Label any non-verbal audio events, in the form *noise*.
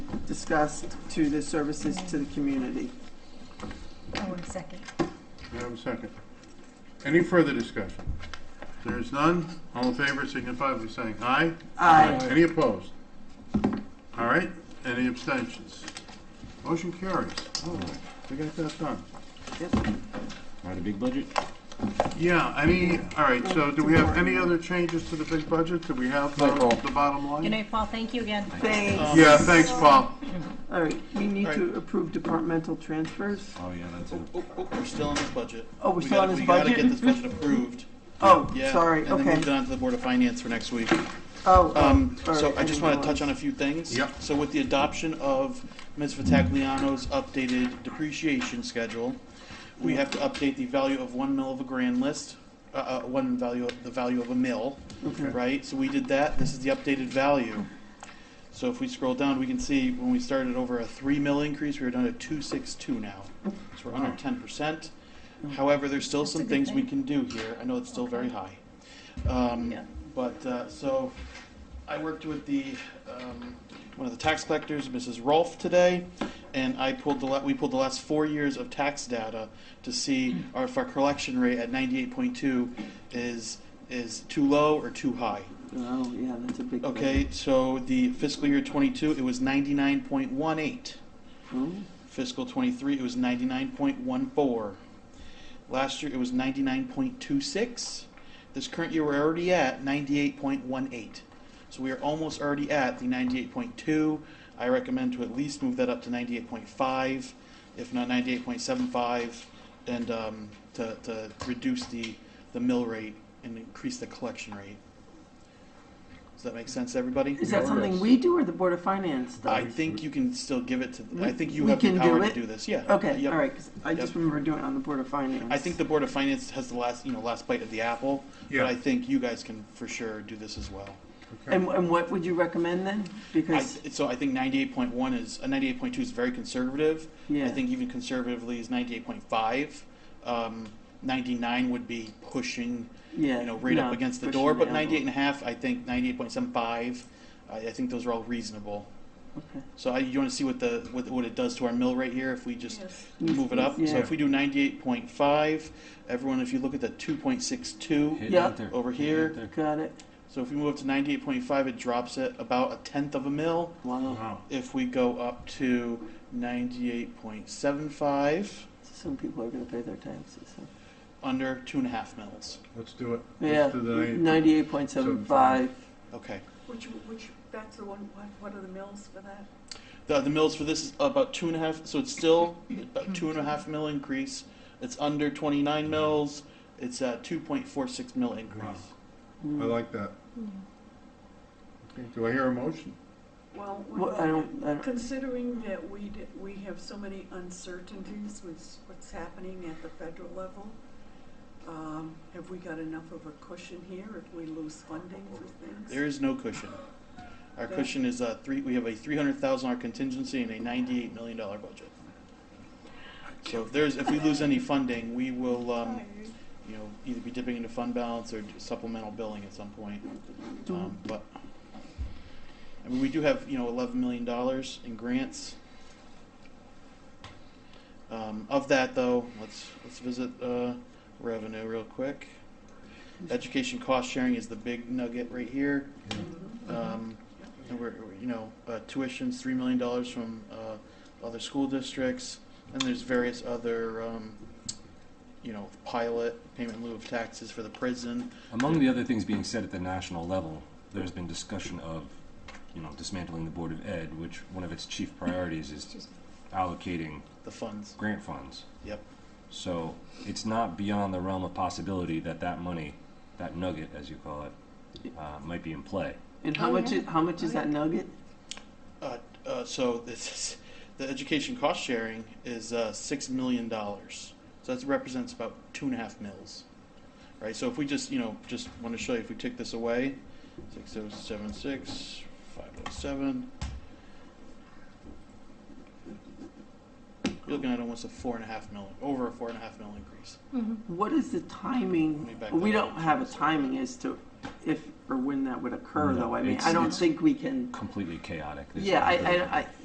discussed to the services to the community. I want a Oh, second. Do I have a second? Any further discussion? If There is none, all in favor signify by saying aye. Aye. Any opposed? All right, any abstentions? Motion carries. All right, we got that done. Not a big budget? Yeah, any, all right, so do we have any other changes to the big budget? Do we have the No, Paul. the bottom Good line? night, Paul, thank you again. Thanks. Um, Yeah, thanks, Paul. All right, we need to approve departmental transfers. Oh, yeah, that's it. Oh, oh, we're still on this budget. Oh, we're We still on gotta- this We gotta get budget? this *laughs* budget approved. Oh, Yeah, sorry, And then okay. moved on to the Board of Finance for next week. Oh, Um, all so right, I just didn't wanna touch on a few things. Yep. So with the adoption of Ms. Vitagliano's updated depreciation schedule, we have to update the value of one mill of a grand list, uh, uh, one value, of the value of a mill, Okay. right? So we did that, this is the updated value. So if we scroll down, we can see when we started over a three mill increase, we were down to two six two now. So we're under ten percent. However, there's still Mm-hmm. That's a some good things we thing. can do here. I know it's still very high. Um, Yeah. But, uh, so, I worked with the, um, one of the tax collectors, Mrs. Rolfe, today, and I pulled the, la- we pulled the last four years of tax data to see our- if our collection rate at ninety-eight point two is, is too low or too high. Oh, yeah, that's a big. Okay, so the fiscal year twenty-two, it was ninety-nine point one eight. thing. Fiscal twenty-three, it was ninety-nine point one four. Last year, it was ninety-nine point two six. This current year, we're already at ninety-eight point one eight. So we are almost already at the ninety-eight point two. I recommend to at least move that up to ninety-eight point five, if not ninety-eight point seven five, and, um, to, to reduce the, the mill rate and increase the collection rate. Does that make sense, everybody? Is that something we do or the Board of Finance I does? think you can still give it to, I think you We have the can do power it? to do this, yeah. Okay, Yep. all right, 'cause I just Yep. remember doing it on the Board of Finance. I think the Board of Finance has the last, you know, last bite of the apple, Yeah. but I think you guys can for sure do this as well. And, and what would you recommend then? I, Because, so I think ninety-eight point one is, uh, ninety-eight point two is very conservative. yeah. I think even conservatively is ninety-eight point five. Um, ninety-nine would be pushing, yeah, you know, right no, up against the pushing door, but envelope. ninety-eight and a half, I think ninety-eight point seven five, I, I think those are all reasonable. Okay. So I, you wanna see what the, what, what it does to our mill rate here if we just move it up. Yeah. So if we do ninety-eight point five, everyone, if you look at the two point six two Hit Yeah. enter. over Hit here, enter. Got it. so if we move up to ninety-eight point five, it drops it about a tenth of a mil. Wow. Wow. If we go up to ninety-eight point seven five, Some people are going to pay their taxes. huh? under two and a half mils. Let's do it. Yeah, Let's do the 98. ninety-eight point seven five. Okay. Which, which, that's the one, what, what are the mills for that? The, the mills for this is about two and a half, so it's still about two and a half mil increase. It's under twenty-nine mils. It's a two point four six mil increase. Wow. I like that. Okay, Do I hear a motion? Well, Well, I don't, I don't, considering that we, d- we have so many uncertainties with what's happening at the federal level, um, have we got enough of a cushion here if we lose funding for things? There is no cushion. Our cushion is a three, we have a three hundred thousand dollar contingency and a ninety-eight million dollar budget. So if there's, if we lose any funding, we will, um, you know, either be dipping into fund balance or supplemental billing at some point. Um, but, I mean, we do have, you know, eleven million dollars in grants. Um, of that though, let's, let's visit, uh, revenue real quick. Education cost sharing is the big nugget right here. Um, and we're, we're, you know, uh, tuition's three million dollars from, uh, other school districts, and there's various other, um, you know, pilot, payment in lieu of taxes for the prison. Among the other things being said at the national level, there's been discussion of, you know, dismantling the Board of Ed, which one of its chief priorities is allocating the funds. grant funds. Yep. So it's not beyond the realm of possibility that that money, that nugget, as you call it, uh, might be in play. and how Oh, much, yeah. is- how much is Oh, yeah. that nugget? Uh, uh, so this is, the education cost sharing is uh, six million dollars. So that represents about two and a half mils, right? So if we just you know just want to show you if we take this away, six oh seven six five oh seven. You're looking at almost a four and a half mil, over a four and a half mil increase. What is the Let me timing? back We that don't up. have a timing as to if or when that would occur, No, though. I mean, it's- I don't it's- think we can. Completely chaotic. There's- Yeah, I, I, I,